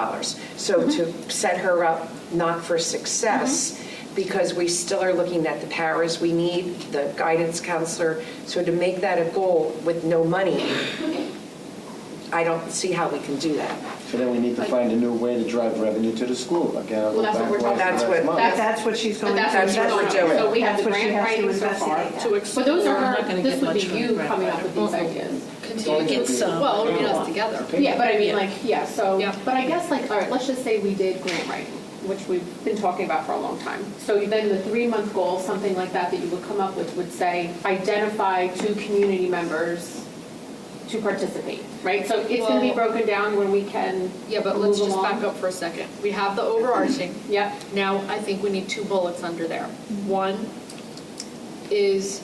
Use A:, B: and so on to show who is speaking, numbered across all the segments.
A: dollars. So to set her up not for success, because we still are looking at the powers we need, the guidance counselor, so to make that a goal with no money, I don't see how we can do that.
B: So then we need to find a new way to drive revenue to the school. Again, I'll go
C: Well, that's
B: back
C: what we're
B: to
C: talking
B: last
A: about.
B: month.
C: That's-
D: That's what she's
C: But
D: going to.
C: that's what
A: we're
C: we're
A: doing.
C: doing. So we have
D: That's
C: the
D: what she
C: grant
D: has to
C: writing so far.
D: investigate.
E: to explore.
C: But those are,
E: I'm not gonna
C: her-
E: get
C: this would
E: much
C: be
E: of a
C: you
E: grant
C: coming
E: writer.
C: up with these ideas.
B: Don't
E: Continue to
B: you
E: get
B: be-
E: some.
B: Well,
E: bring it
B: yeah.
E: all together.
C: Yeah, but I mean, like, yeah, so,
E: Oh, Yeah.
C: but I guess like, all right, let's just say we did grant writing, which we've been talking about for a long time. So then the three-month goal, something like that, that you would come up with would say, identify two community members to participate, right? So it's gonna be
E: Well-
C: broken down when we can
E: Yeah, but let's
C: move
E: just
C: along.
E: back up for a second. We have the overarching.
C: Yep,
E: Now, I think we need two bullets under there. One is,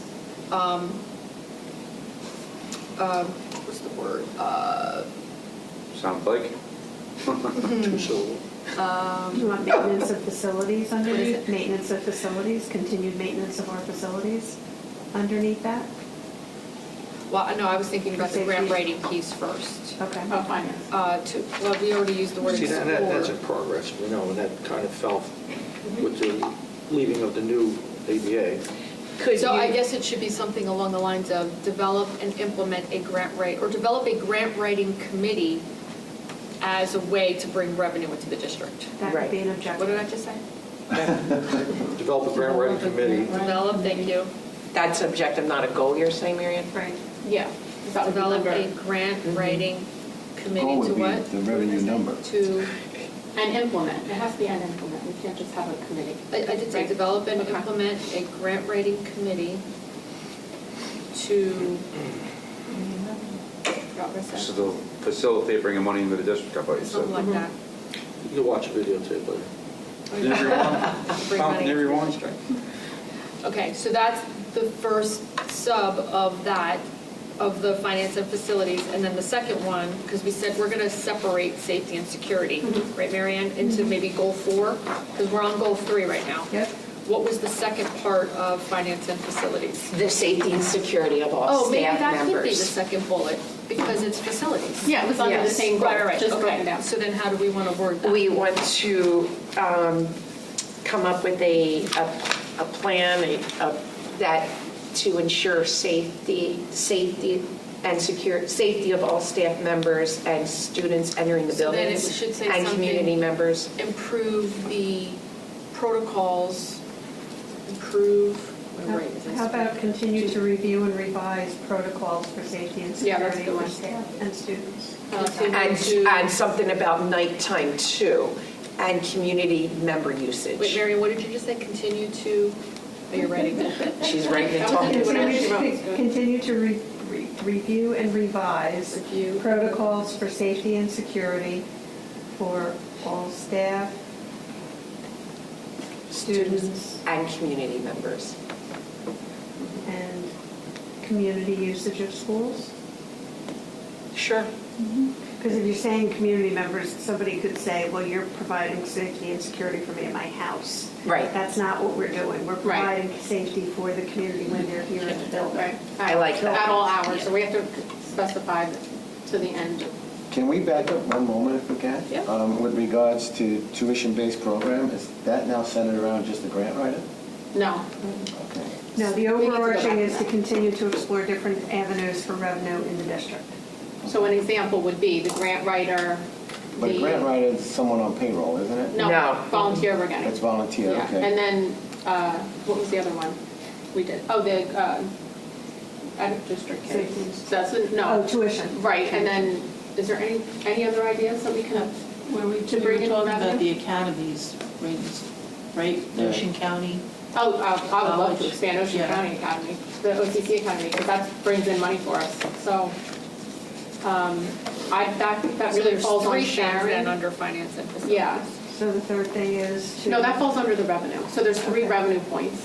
E: um, um, what's the word? Uh,
F: Sounds like. Too soon.
E: um,
D: You want maintenance of facilities
E: What is
D: underneath,
E: it?
D: maintenance of facilities, continued maintenance of our facilities underneath that?
E: Well, I know, I was thinking about the grant
D: Safety.
E: writing piece first.
D: Okay.
C: oh, finance.
E: Uh, to, well, we already used the word
G: See,
E: explore.
G: that, that- that's in progress, you know, and that kind of fell with the leaving of the new ABA.
A: Could
E: So I
A: you,
E: guess it should be something along the lines of develop and implement a grant write, or develop a grant writing committee as a way to bring revenue into the district.
D: That would be an
E: What did I
D: objective.
E: just say?
G: Develop a grant writing committee.
E: Develop, thank you.
A: that's objective, not a goal, you're saying, Marion?
D: Right.
C: Yeah. that would be
E: Develop
C: under-
E: a grant writing committee
B: Goal
E: to
B: Mm-hmm. would be
E: what?
B: the revenue number.
E: To,
C: And implement, it has to be an implement, we can't just have a committee.
E: I I did say
C: Right.
E: develop and
C: Okay.
E: implement a grant writing committee to, I forgot what I
F: This is
E: said.
F: to facilitate bringing money into the district, I thought you
E: something
F: said.
C: Mm-hmm.
E: like that.
G: You'll watch a videotape later.
F: Did everyone?
E: Bring
F: Found
E: money into the
F: everyone?
E: district. Okay, so that's the first sub of that, of the finance and facilities. And then the second one, because we said we're going to separate safety and security, right, Marianne, into maybe goal four? Because we're on goal three right now.
D: Yep.
E: What was the second part of finance and facilities?
A: The safety and security of all
E: Oh, maybe
A: staff
E: that could be the
A: members.
E: second bullet, because it's facilities.
C: Yeah, it was under the
A: Yes.
C: same goal,
E: Right, right, right,
C: just broken
E: okay.
C: down.
E: So then how do we want to word that?
A: We want to um, come up with a, a a plan a- a- that, to ensure safety, safety and secure, safety of all staff members and students entering the
E: So then it
A: buildings.
E: should say
A: And community
E: something-
A: members.
E: improve the protocols, improve. where is this?
D: How about continue to review and revise protocols for safety and
C: Yeah, that's
D: security
C: the
D: for
C: one.
D: staff and students?
A: And,
E: Continue to-
A: and something about nighttime too, and community member
E: Wait,
A: usage.
E: Mary, what did you just say? Continue to, are you writing that?
A: She's right in the
E: That was
A: talking.
E: it. What
D: Continue
E: else you wrote?
D: to- Continue to re- re- review and revise
E: Review.
D: protocols for safety and security for all staff, students,
A: And community members.
D: and community usage of schools?
A: Sure.
D: Because if you're saying community members, somebody could say, well, you're providing safety and security for me at my house.
A: Right.
D: That's not what we're doing. We're
C: Right.
D: providing safety for the community when they're here in the
C: Right.
D: building.
A: I like that.
C: At all hours, so we have to specify to the end.
B: Can we back up one moment if we can?
E: Yeah.
B: Um, With regards to tuition-based program, is that now centered around just the grant writer?
C: No,
B: Okay.
D: No, the
C: We need to go back
D: overarching
C: to
D: is to
C: that.
D: continue to explore different avenues for revenue in the district.
C: so an example would be the grant writer,
B: But a grant
C: the,
B: writer is someone on payroll, isn't it?
A: No.
C: no, volunteer we're
B: That's
C: getting.
B: volunteer,
C: Yeah,
B: okay.
C: and then, uh, what was the other one we did? Oh, the, uh, out of district kids.
D: Safety.
C: That's, a- no.
D: Oh, tuition.
C: Right, and then, is there any, any other ideas that we can,
H: Where we,
C: To
H: we
C: bring
H: were
C: it
H: talking about
C: together?
H: the academies, rings, right,
B: Yeah.
H: Ocean County.
C: oh, uh, I would love to
H: College.
C: expand Ocean
H: Yeah.
C: County Academy, the OCC Academy, because that brings in money for us, so, um, I, that, that
E: So
C: really
E: there's
C: falls on
E: three things then
C: Sharon.
E: under finance and facilities.
C: Yeah,
D: So the third thing is to.
C: no, that falls under the revenue, so there's three
D: Okay.
C: revenue points,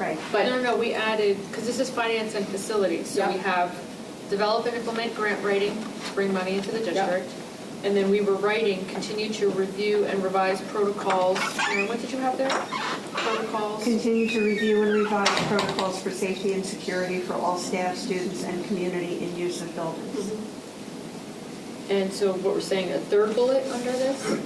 D: Right.
E: But no,
C: but,
E: no, no, we added, because this is finance and facilities, so we
C: Yeah.
E: have develop and implement grant writing to bring money into the
C: Yeah.
E: district. And then we were writing, continue to review and revise protocols. Karen, what did you have there? Protocols.
D: Continue to review and revise protocols for safety and
C: Mm-hmm.
D: security for all staff, students, and community in use of buildings.
E: And so what we're saying, a third bullet under this?